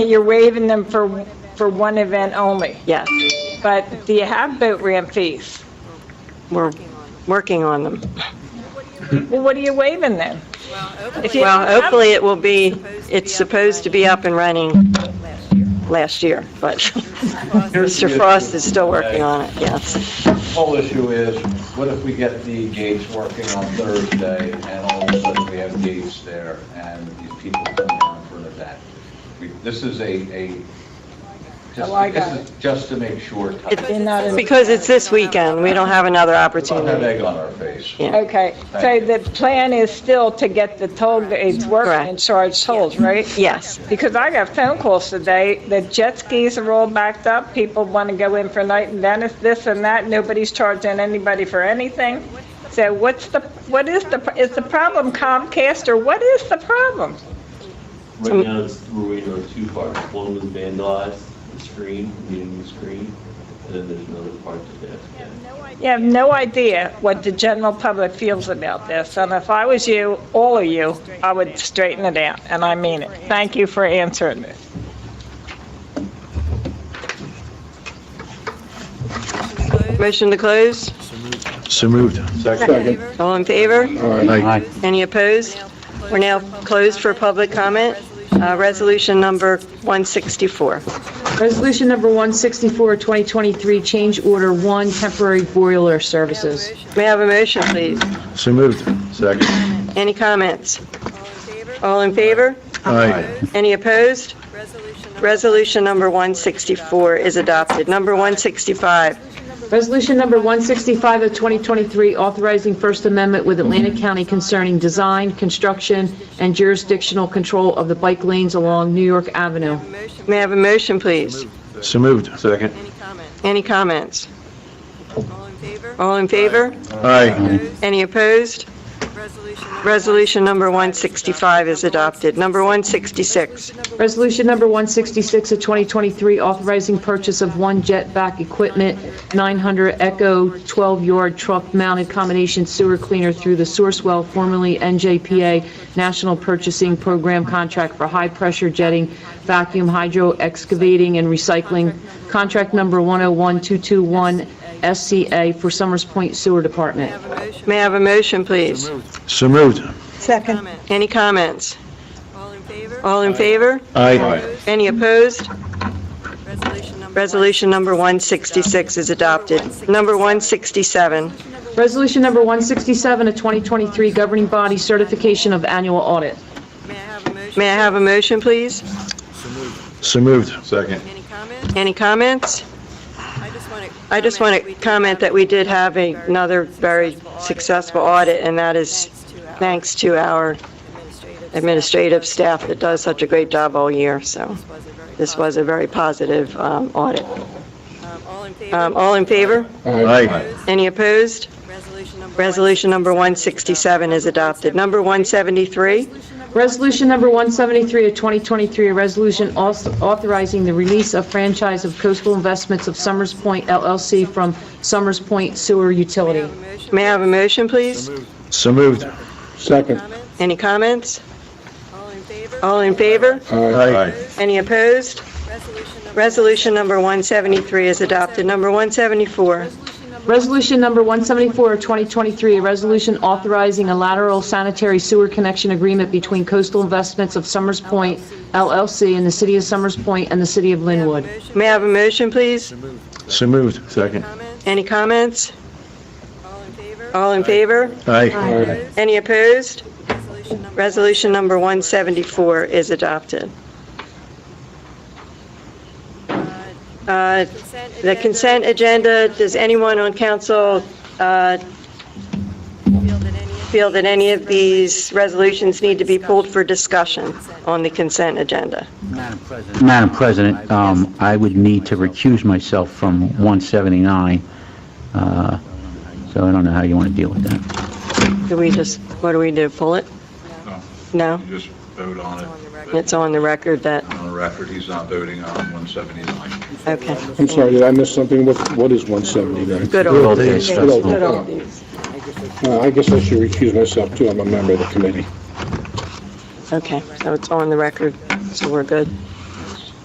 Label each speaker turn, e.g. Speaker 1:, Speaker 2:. Speaker 1: You're waiving them for, for one event only,
Speaker 2: Yes,
Speaker 1: but do you have boat ramp fees?
Speaker 2: we're working on them.
Speaker 1: Well, what are you waiving them? If you don't
Speaker 2: Well,
Speaker 1: have-
Speaker 2: hopefully it will be, it's supposed to be up and running last year, but Mr. Frost is still working on it, yes.
Speaker 3: Whole issue is, what if we get the gates working on Thursday, and all of a sudden we have gates there, and these people come down for an event? We- This is a, a,
Speaker 1: Oh, I
Speaker 3: just-
Speaker 1: got
Speaker 3: this is just to make sure, type.
Speaker 1: They're not in-
Speaker 2: Because it's this weekend, we don't have another
Speaker 3: don't have
Speaker 2: opportunity.
Speaker 3: egg on our face.
Speaker 2: Yeah.
Speaker 1: Okay, so the plan is still to get the toll gates working and
Speaker 2: Correct.
Speaker 1: charge tolls, right?
Speaker 2: Yes,
Speaker 1: Because I got phone calls today, the jet skis are all backed up, people want to go in for night and then it's this and that, nobody's charging anybody for anything. So what's the, what is the, is the problem Comcast or what is the problem?
Speaker 4: Right now, it's, we're waiting on two parts. One was vandalized, the screen, we need a new screen, and then there's another part that they have to get.
Speaker 1: You have no idea what the general public feels about this, and if I was you, all of you, I would straighten it out, and I mean it. Thank you for answering this.
Speaker 2: motion to close,
Speaker 5: So moved.
Speaker 6: Second.
Speaker 2: all in favor?
Speaker 5: Aye.
Speaker 2: Any opposed? We're now closed for public comment, Uh, resolution number 164.
Speaker 6: Resolution number 164, 2023, change order one, temporary boiler services.
Speaker 2: May I have a motion, please?
Speaker 5: So moved. Second.
Speaker 2: Any comments? All in favor?
Speaker 5: Aye.
Speaker 2: Any opposed? Resolution number 164 is adopted. Number 165,
Speaker 6: Resolution number 165 of 2023, authorizing First Amendment with Atlantic County concerning design, construction, and jurisdictional control of the bike lanes along New York Avenue.
Speaker 2: may I have a motion, please?
Speaker 5: So moved. Second.
Speaker 2: Any comments? All in favor?
Speaker 5: Aye.
Speaker 2: Any opposed? Resolution number 165 is adopted. Number 166,
Speaker 6: Resolution number 166 of 2023, authorizing purchase of one jetback equipment 900 Echo 12-yard truck-mounted combination sewer cleaner through the Sourcewell, formerly NJPA, National Purchasing Program contract for high-pressure jetting, vacuum hydro excavating and recycling, contract number 101221 SCA for Summers Point Sewer Department.
Speaker 2: may I have a motion, please?
Speaker 5: So moved.
Speaker 2: Any comments? All in favor?
Speaker 5: Aye.
Speaker 2: Any opposed? Resolution number 166 is adopted. Number 167,
Speaker 6: Resolution number 167 of 2023, governing body certification of annual audit.
Speaker 2: may I have a motion, please?
Speaker 5: So moved. Second.
Speaker 2: Any comments? I just want to comment that we did have a- another very successful audit, and that is thanks to our administrative staff that does such a great job all year, so this was a very positive um, audit.
Speaker 7: All in
Speaker 2: Um,
Speaker 7: favor?
Speaker 2: All in favor?
Speaker 5: Aye.
Speaker 2: Any opposed?
Speaker 7: Resolution number
Speaker 2: Resolution number 167 is adopted. Number 173,
Speaker 6: Resolution number 173 of 2023, a resolution also authorizing the release of franchise of coastal investments of Summers Point LLC from Summers Point Sewer Utility.
Speaker 2: may I have a motion, please?
Speaker 5: So moved.
Speaker 8: Second.
Speaker 2: Any comments?
Speaker 7: All in favor?
Speaker 2: All in favor?
Speaker 5: Aye.
Speaker 2: Any opposed?
Speaker 7: Resolution number
Speaker 2: Resolution number 173 is adopted. Number 174,
Speaker 6: Resolution number 174 of 2023, a resolution authorizing a lateral sanitary sewer connection agreement between coastal investments of Summers Point LLC and the city of Summers Point and the city of Linwood.
Speaker 2: may I have a motion, please?
Speaker 5: So moved. Second.
Speaker 7: comments?
Speaker 2: Any comments?
Speaker 7: All in favor?
Speaker 2: All in favor?
Speaker 5: Aye.
Speaker 2: Any opposed?
Speaker 7: Resolution number
Speaker 2: Resolution number 174 is adopted. Uh,
Speaker 7: consent
Speaker 2: The
Speaker 7: agenda
Speaker 2: consent agenda, does anyone on council uh,
Speaker 7: field in any of
Speaker 2: feel that any of these resolutions need to be pulled for discussion on the consent agenda?
Speaker 9: Madam President, um, I would need to recuse myself from 179, uh, so I don't know how you want to deal with that.
Speaker 2: Do we just, what do we do, pull it? No?
Speaker 3: You just vote on
Speaker 7: on the record?
Speaker 2: It's on the record that,
Speaker 3: on the record, he's not voting on 179.
Speaker 2: okay.
Speaker 8: I'm sorry, did I miss something? What, what is 179?
Speaker 2: Good old
Speaker 5: days.
Speaker 2: days.
Speaker 8: Good old Uh, I guess I should recuse myself too. I'm a member of the committee.
Speaker 2: Okay, so it's on the record, so we're good.